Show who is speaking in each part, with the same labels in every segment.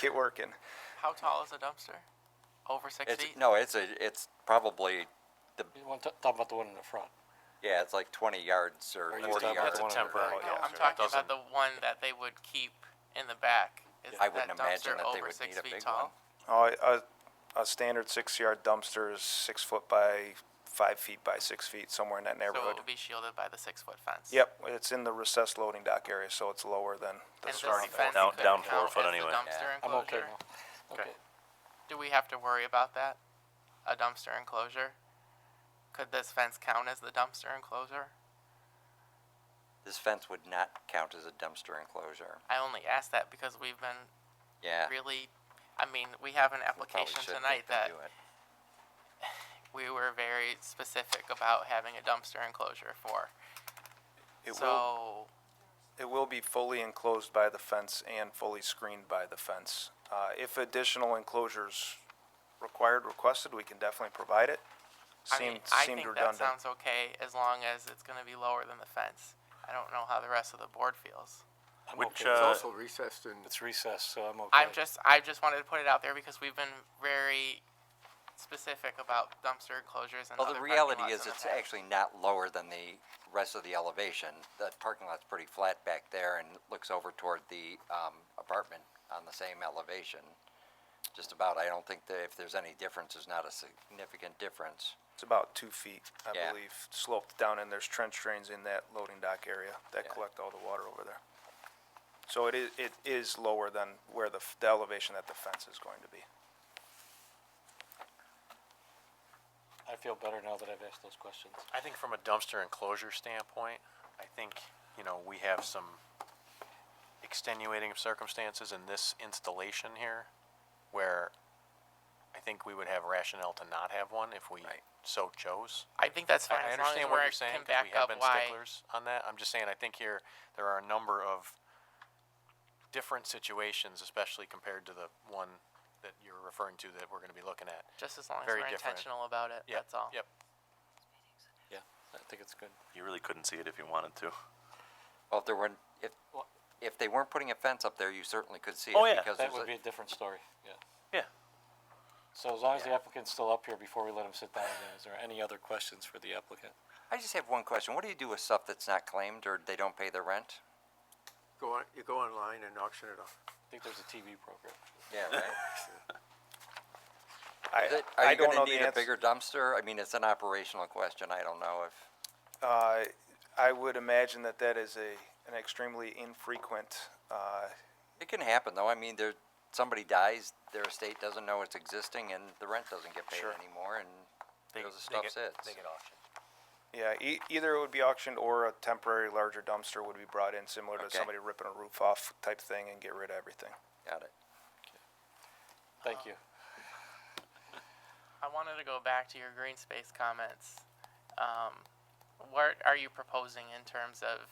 Speaker 1: Get working.
Speaker 2: How tall is a dumpster? Over six
Speaker 3: It's,
Speaker 2: feet?
Speaker 3: no, it's a, it's probably,
Speaker 4: You want to talk about the one in the front?
Speaker 3: yeah, it's like twenty yards or
Speaker 4: Are you
Speaker 3: forty
Speaker 4: talking about
Speaker 3: yards.
Speaker 4: the one in the
Speaker 5: temporary
Speaker 4: back?
Speaker 2: No, I'm
Speaker 5: dumpster, that
Speaker 2: talking about the one that they would keep in the back. Is
Speaker 3: I wouldn't
Speaker 2: that
Speaker 3: imagine
Speaker 2: dumpster
Speaker 3: that they
Speaker 2: over
Speaker 3: would
Speaker 2: six
Speaker 3: need a
Speaker 2: feet
Speaker 3: big
Speaker 2: tall?
Speaker 3: one.
Speaker 1: Oh, a, a standard six-yard dumpster is six foot by five feet by six feet, somewhere in that
Speaker 2: So
Speaker 1: neighborhood.
Speaker 2: it would be shielded by the six-foot fence?
Speaker 1: Yep, it's in the recessed loading dock area, so it's lower than the
Speaker 2: And this
Speaker 1: starting
Speaker 2: fence
Speaker 1: point.
Speaker 5: Down-
Speaker 2: could
Speaker 5: down four
Speaker 2: count
Speaker 5: foot
Speaker 2: as the
Speaker 5: anyway.
Speaker 2: dumpster
Speaker 4: I'm okay
Speaker 2: enclosure?
Speaker 4: now.
Speaker 5: Okay.
Speaker 4: Okay.
Speaker 2: Do we have to worry about that? A dumpster enclosure? Could this fence count as the dumpster enclosure?
Speaker 3: This fence would not count as a dumpster enclosure.
Speaker 2: I only ask that because we've been
Speaker 3: Yeah. we
Speaker 2: really, I mean, we have an
Speaker 3: probably
Speaker 2: application
Speaker 3: shouldn't
Speaker 2: tonight
Speaker 3: even
Speaker 2: that
Speaker 3: do it.
Speaker 2: we were very specific about having a dumpster enclosure for.
Speaker 1: It will,
Speaker 2: So,
Speaker 1: it will be fully enclosed by the fence and fully screened by the fence. Uh, if additional enclosures required, requested, we can definitely provide it.
Speaker 2: I mean,
Speaker 1: Seemed,
Speaker 2: I
Speaker 1: seemed
Speaker 2: think that
Speaker 1: redundant.
Speaker 2: sounds okay as long as it's gonna be lower than the fence. I don't know how the rest of the board feels.
Speaker 4: I'm
Speaker 5: Which,
Speaker 4: okay.
Speaker 5: uh,
Speaker 6: It's also recessed and
Speaker 4: It's recessed, so I'm okay.
Speaker 2: I'm just, I just wanted to put it out there because we've been very specific about dumpster enclosures and
Speaker 3: Well,
Speaker 2: other
Speaker 3: the
Speaker 2: parking
Speaker 3: reality
Speaker 2: lots
Speaker 3: is
Speaker 2: in the
Speaker 3: it's
Speaker 2: past.
Speaker 3: actually not lower than the rest of the elevation. The parking lot's pretty flat back there and looks over toward the, um, apartment on the same elevation. Just about, I don't think that if there's any difference, there's not a significant difference.
Speaker 1: It's about two feet, I
Speaker 3: Yeah.
Speaker 1: believe, sloped down, and there's trench drains in that loading dock area that
Speaker 3: Yeah.
Speaker 1: collect all the water over there. So it is, it is lower than where the, f- the elevation that the fence is going to be.
Speaker 4: I feel better now that I've asked those questions.
Speaker 5: I think from a dumpster enclosure standpoint, I think, you know, we have some extenuating circumstances in this installation here where I think we would have rationale to not have one if we so chose.
Speaker 2: I think that's fine
Speaker 5: I- I
Speaker 2: as long as
Speaker 5: understand what
Speaker 2: we're,
Speaker 5: you're saying,
Speaker 2: can
Speaker 5: 'cause
Speaker 2: back
Speaker 5: we have
Speaker 2: up
Speaker 5: been
Speaker 2: why.
Speaker 5: sticklers on that. I'm just saying, I think here, there are a number of different situations, especially compared to the one that you're referring to that we're gonna be looking at.
Speaker 2: Just as long as
Speaker 5: Very
Speaker 2: we're
Speaker 5: different.
Speaker 2: intentional about it,
Speaker 5: Yep,
Speaker 2: that's all.
Speaker 5: Yep.
Speaker 4: Yeah, I think it's good.
Speaker 7: You really couldn't see it if you wanted to.
Speaker 3: Well, if there weren't, if,
Speaker 4: Well-
Speaker 3: if they weren't putting a fence up there, you certainly could see it.
Speaker 5: Oh, yeah,
Speaker 3: because
Speaker 4: That
Speaker 3: there's a-
Speaker 4: would be a different story, yeah.
Speaker 5: Yeah.
Speaker 4: So as long as the applicant's still up here before we let him sit down again, is there any other questions for the applicant?
Speaker 3: I just have one question. What do you do with stuff that's not claimed or they don't pay their rent?
Speaker 6: go on, you go online and auction it off.
Speaker 4: I think there's a TV program.
Speaker 3: Yeah, right. Is
Speaker 1: I,
Speaker 3: it-
Speaker 1: I
Speaker 3: Are you
Speaker 1: don't know
Speaker 3: gonna
Speaker 1: the
Speaker 3: need a
Speaker 1: answer.
Speaker 3: bigger dumpster? I mean, it's an operational question. I don't know if,
Speaker 1: Uh, I would imagine that that is a, an extremely infrequent, uh,
Speaker 3: it can happen though. I mean, there, somebody dies, their estate doesn't know it's existing and the rent doesn't get paid
Speaker 1: Sure.
Speaker 3: anymore and
Speaker 5: They-
Speaker 3: goes the
Speaker 5: they
Speaker 3: stuff
Speaker 5: get-
Speaker 3: sits.
Speaker 5: They get auctioned.
Speaker 1: yeah, e- either it would be auctioned or a temporary larger dumpster would be brought in, similar to
Speaker 3: Okay.
Speaker 1: somebody ripping a roof off type thing and get rid of everything.
Speaker 3: Got it.
Speaker 4: Thank you.
Speaker 2: I wanted to go back to your green space comments. Um, what are you proposing in terms of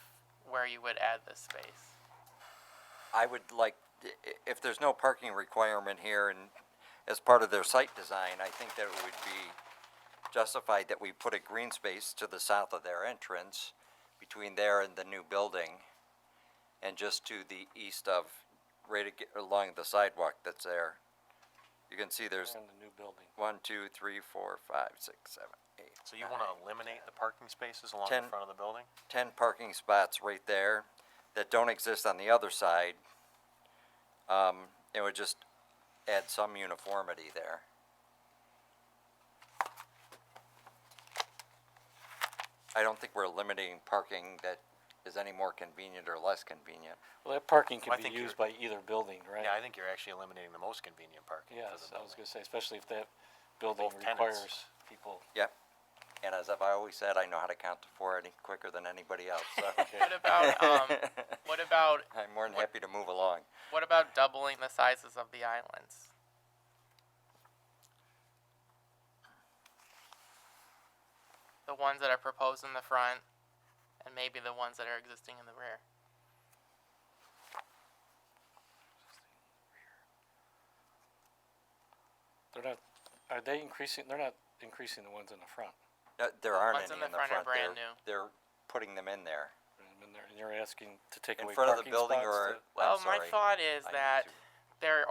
Speaker 2: where you would add this space?
Speaker 3: I would like, i- i- if there's no parking requirement here and as part of their site design, I think that it would be justified that we put a green space to the south of their entrance between there and the new building and just to the east of, right ag- along the sidewalk that's there. You can see there's
Speaker 4: And the new building.
Speaker 3: one, two, three, four, five, six, seven, eight.
Speaker 5: So you want to eliminate the parking spaces along the
Speaker 3: Ten.
Speaker 5: front of the building?
Speaker 3: ten parking spots right there that don't exist on the other side. Um, it would just add some uniformity there. I don't think we're limiting parking that is any more convenient or less convenient.
Speaker 4: Well, that parking
Speaker 5: Well,
Speaker 4: can
Speaker 5: I
Speaker 4: be
Speaker 5: think
Speaker 4: used by either building, right?
Speaker 5: Yeah, I think you're actually eliminating the most convenient parking for
Speaker 4: Yes,
Speaker 5: the
Speaker 4: I was
Speaker 5: building.
Speaker 4: gonna say, especially if that building
Speaker 5: Both tenants.
Speaker 4: requires people.
Speaker 3: Yep. And as I've always said, I know how to count to four any quicker than anybody else, so
Speaker 2: What about um, what about
Speaker 3: I'm more than happy to move along.
Speaker 2: what about doubling the sizes of the islands? The ones that are proposed in the front, and maybe the ones that are existing in the rear.
Speaker 4: They're not, are they increasing, they're not increasing the ones in the front.
Speaker 3: Uh, There aren't
Speaker 2: ones
Speaker 3: any
Speaker 2: in
Speaker 3: in
Speaker 2: the
Speaker 3: the
Speaker 2: front are
Speaker 3: front.
Speaker 2: brand
Speaker 3: They're-
Speaker 2: new.
Speaker 3: They're putting them in there.
Speaker 4: And they're- and you're asking to take
Speaker 3: In
Speaker 4: away
Speaker 3: front of the
Speaker 4: parking
Speaker 3: building
Speaker 4: spots
Speaker 3: or,
Speaker 4: to-
Speaker 3: I'm
Speaker 2: well, Oh, my
Speaker 3: sorry.
Speaker 2: thought is
Speaker 3: I need
Speaker 2: that
Speaker 3: to-
Speaker 2: there